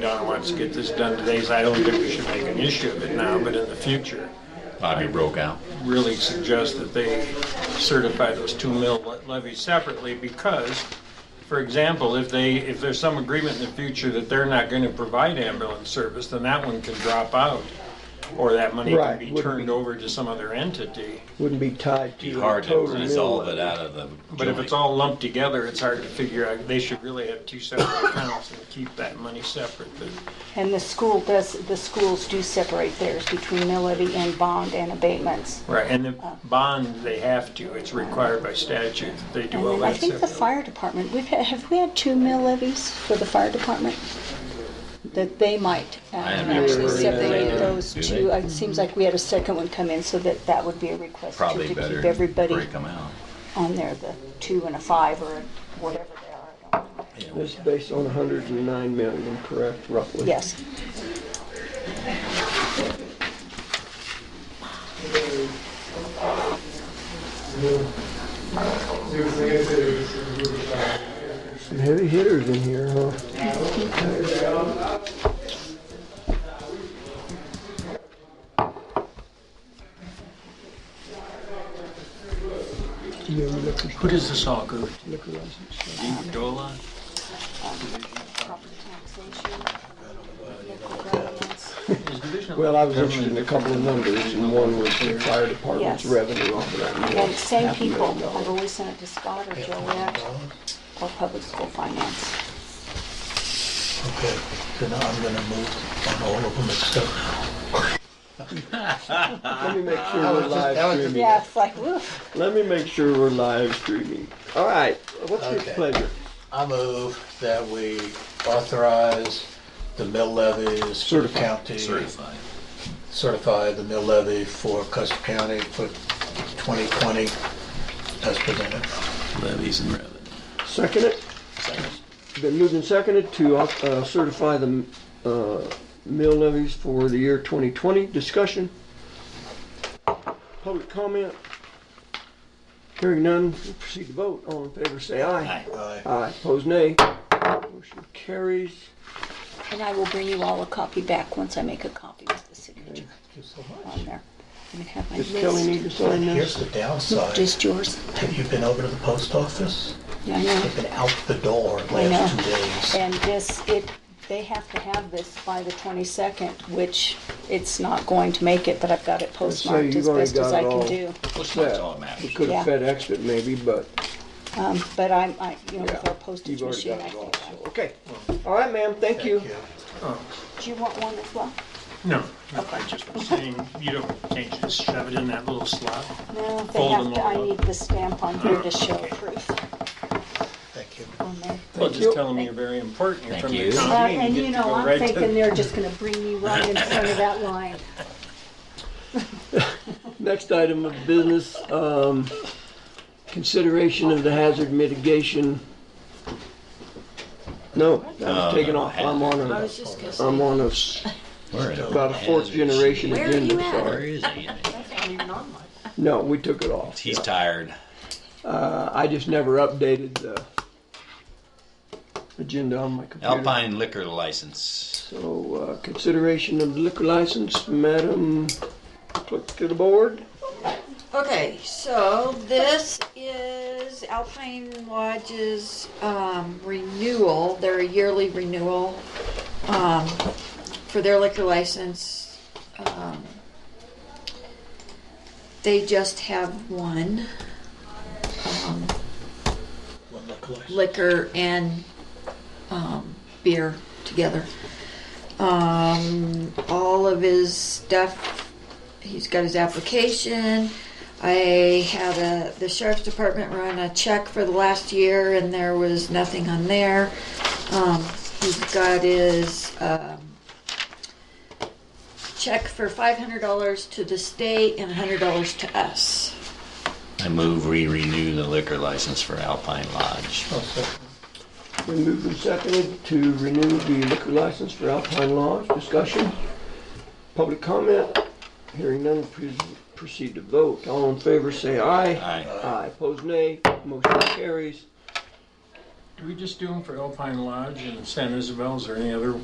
Don wants to get this done today, so I don't think we should make an issue of it now, but in the future, Bobby broke out. really suggest that they certify those two mill le- levies separately because, for example, if they, if there's some agreement in the future that they're not going to provide ambulance service, then that one can drop out. Or that money can Right, be wouldn't turned be- over to some other entity. Wouldn't be tied to Be the hard to total mill resolve it levy. out of the. But if it's joint. all lumped together, it's hard to figure out. They should really have two separate accounts and keep that money separate. But And the school does, the schools do separate theirs between mill levy and bond and abatements. Right, and the bond, they have to, it's required by statute, that they And do all then I that think the separately. fire department, we've had, have we had two mill levies for the fire department? That they might uh, have never actually heard of separate that. those Do two. they? It seems like we had a second one come in, so that that would be a request too, Probably to better keep break everybody them out. on there, the two and a five or whatever they are. I don't know. Yeah. This is based on 109 million, correct, roughly? Yes. Some heavy hitters in here, huh? Yeah, liquor, Who does this all go liquor license. to? DOLA? Property taxation, local governments. Is Division of Well, I was Government- interested in a couple of numbers, and one was the fire department's Yes. revenue off of that. mill, And same half a million people, dollars. I've always sent it to Scott or Joette or public school finance. Okay, so now I'm gonna move on all of them except Let me make sure we're live streaming. Yeah, it's like, woof. Let me make sure we're live streaming. All right, what's your Okay. pleasure? I move that we authorize the mill levies for the Certify. county. Certified. Certify the mill levy for Custer County for 2020 as presented. Levies and revenue. Second it? Been moved and seconded to uh, certify the uh, mill levies for the year 2020. Discussion? Public comment? Hearing none, we'll proceed to vote. All in favor, say aye. Aye. Aye, opposed nay. Motion carries. and I will bring you all a copy back once I make a copy with the signature Thank you so much. on there. I'm gonna have my Does Kelly need list. to sign Here's this? the downside. Just yours? Have you been over to the post office? Yeah, I know. I've been out the door the I last know. two days. And this, it, they have to have this by the 22nd, which it's not going to make it, but I've got it postmarked you've as already best as got I it all. can do. Which is all that matters. We could have Yeah. FedExed it maybe, but Um, But I'm, I, you know, yeah. with our postage you've already machine, got I it all, think. so, Okay. All right, ma'am, thank you. Thank you. I- Do you want one as well? No, no, I just was saying, you don't, can't you just shove it in that little slot? No, they Fold have them to, I all up. need the stamp on here to show proof Thank you. on there. Well, you. just tell them you're very important, you're Thank from the you. Well, county. Uh, and get you to know, go I'm right to- thinking they're just gonna bring me right in front of that line. Next item of business, um, consideration of the hazard mitigation. No, that was taken off. I'm on I a, was just gonna say, I'm on a, s- Where is it? about a fourth generation Where are agenda, you at? Where sorry. is he? that's not even on mine. No, we took it off. He's tired. Uh, I just never updated the agenda on my computer. Alpine liquor license. So, uh, consideration of liquor license, Madam Clerk to the board. Okay, so this is Alpine Lodge's um, renewal, their yearly renewal um, for their liquor license. Um, They just have one um, One look license. liquor and um, beer together. Um, all of his stuff, he's got his application. I had a, the sheriff's department run a check for the last year, and there was nothing on there. Um, he's got his um, check for five hundred dollars to the state and hundred dollars to us. I move we renew the liquor license for Alpine Lodge. Oh, second. Been moved and seconded to renew the liquor license for Alpine Lodge. Discussion? Public comment? Hearing none, please proceed to vote. All in favor, say aye. Aye. Aye. Opposed, nay. Motion carries. Do we just do them for Alpine Lodge and San Isabel's or any other